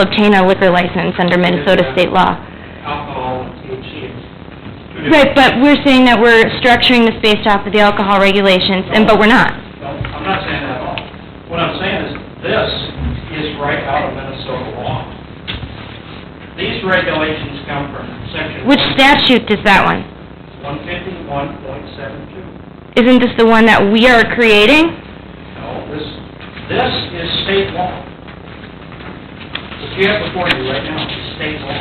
obtain a liquor license under Minnesota state law. alcohol and THC. is- Right, but we're saying that we're structuring this based off of the alcohol regulations, and, but we're not. No, I'm not saying that at all. What I'm saying is, this is right out of Minnesota law. These regulations come from section Which statute is that one? one fifty-one point seven two. Isn't this the one that we are creating? No, this, this is state law. What you have before you right now is state law.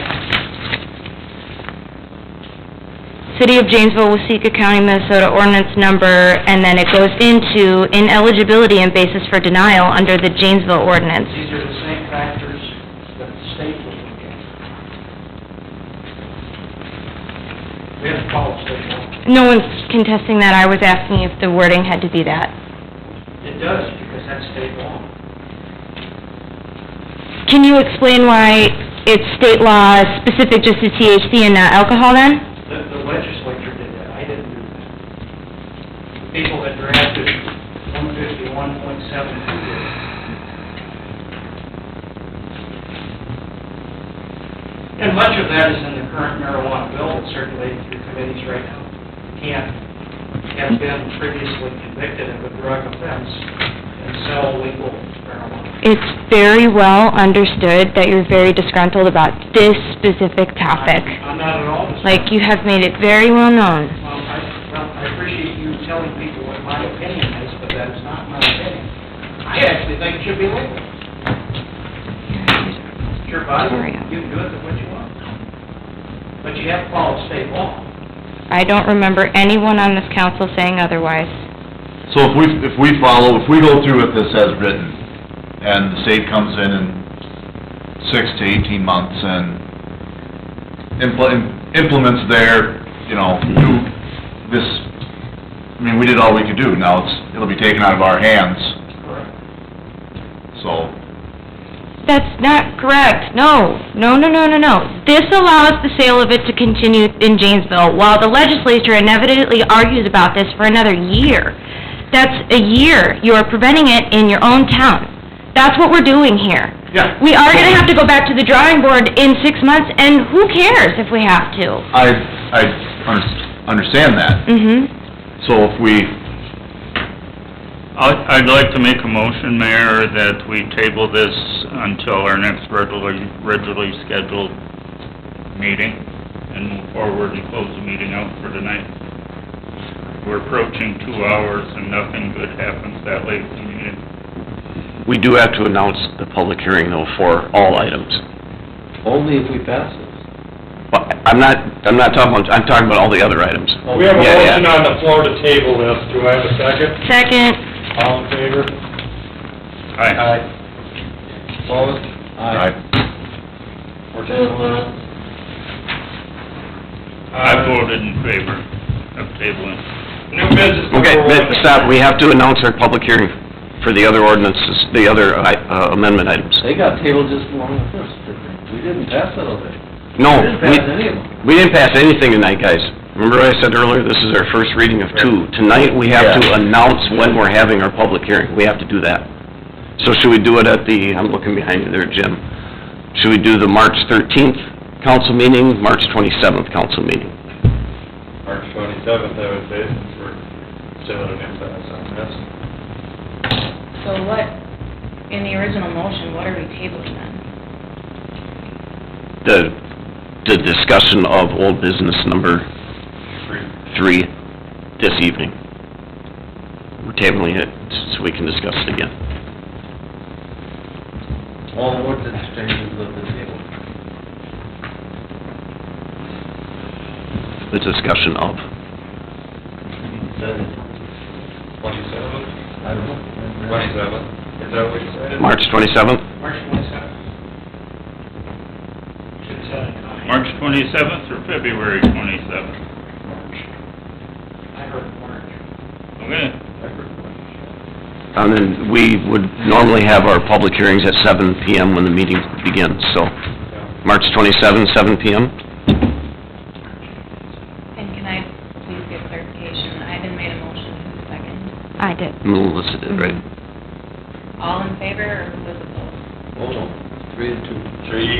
City of Janesville, Waseca County, Minnesota ordinance number, and then it goes into ineligibility and basis for denial under the Janesville ordinance. These are the same factors that the state would look at. We have to follow state law. No one's contesting that, I was asking if the wording had to be that. It does, because that's state law. Can you explain why it's state law specific just to THC and not alcohol then? The the legislature did that, I didn't do that. The People that drafted one fifty-one point seven two did it. And much of that is in the current marijuana bill that's circulating through committees right now. Can't, have been previously convicted of a drug offense and sell legal marijuana. It's very well understood that you're very disgruntled about this specific topic. I'm not at all... Like, you have made it very well known. Well, I, well, I appreciate you telling people what my opinion is, but that is not my opinion. I actually think it should be legal. It's your body, you can do it what you want. But you have to follow state law. I don't remember anyone on this council saying otherwise. So if we, if we follow, if we go through with this as written, and the state comes in in six to eighteen months and impl- implements their, you know, new, this, I mean, we did all we could do, now it's, it'll be taken out of our hands, Correct. so. That's not correct. No, no, no, no, no, no. This allows the sale of it to continue in Janesville while the legislature inevitably argues about this for another year. That's a year. You are preventing it in your own town. That's what we're doing here. Yeah. We are gonna have to go back to the drawing board in six months, and who cares if we have to? I, I under- understand that, Mm-hmm. so if we, I'd I'd like to make a motion, Mayor, that we table this until our next regularly, regularly scheduled meeting and move forward and close the meeting out for tonight. We're approaching two hours and nothing good happens that late in the meeting. We do have to announce the public hearing though for all items. Only if we pass this. But I'm not, I'm not talking, about- I'm talking about all the other items. We have a Yeah, yeah. motion on the floor to table this. Do I have a second? Second, All in favor? Aye. Opposed? I, We're tabling it. I voted in favor of tabling. New business Okay, number but one. stop, we have to announce our public hearing for the other ordinances, the other i- uh, amendment items. They got tabled just along with this, didn't they? We didn't pass it all day. No, We didn't Oh, we, pass any of them. we didn't pass anything tonight, guys. Remember what I said earlier, this is our first reading of two. Tonight, we have to announce when we're having our public hearing, we have to do that. So should we do it at the, I'm looking behind you there, Jim, should we do the March thirteenth council meeting, March twenty-seventh council meeting? March twenty-seventh, I would say, since we're still in impasse on this. So what, in the original motion, what are we tabling then? The, the discussion of old business number three this evening. We're tabling it so we can discuss it again. All the words that changes of the table. The discussion of, Twenty-seventh? I don't know. Twenty-seventh? Is that what you said? March twenty-seventh? March twenty-seventh. Should set a time. March twenty-seventh or February twenty-seventh? I heard March. Okay. And Uh, then we would normally have our public hearings at seven PM when the meeting begins, so March twenty-seven, seven PM? And can I please get clarification? I didn't made a motion, who's second? I did. Melissa did, right? All in favor or who was opposed? Hold on. three to two. Three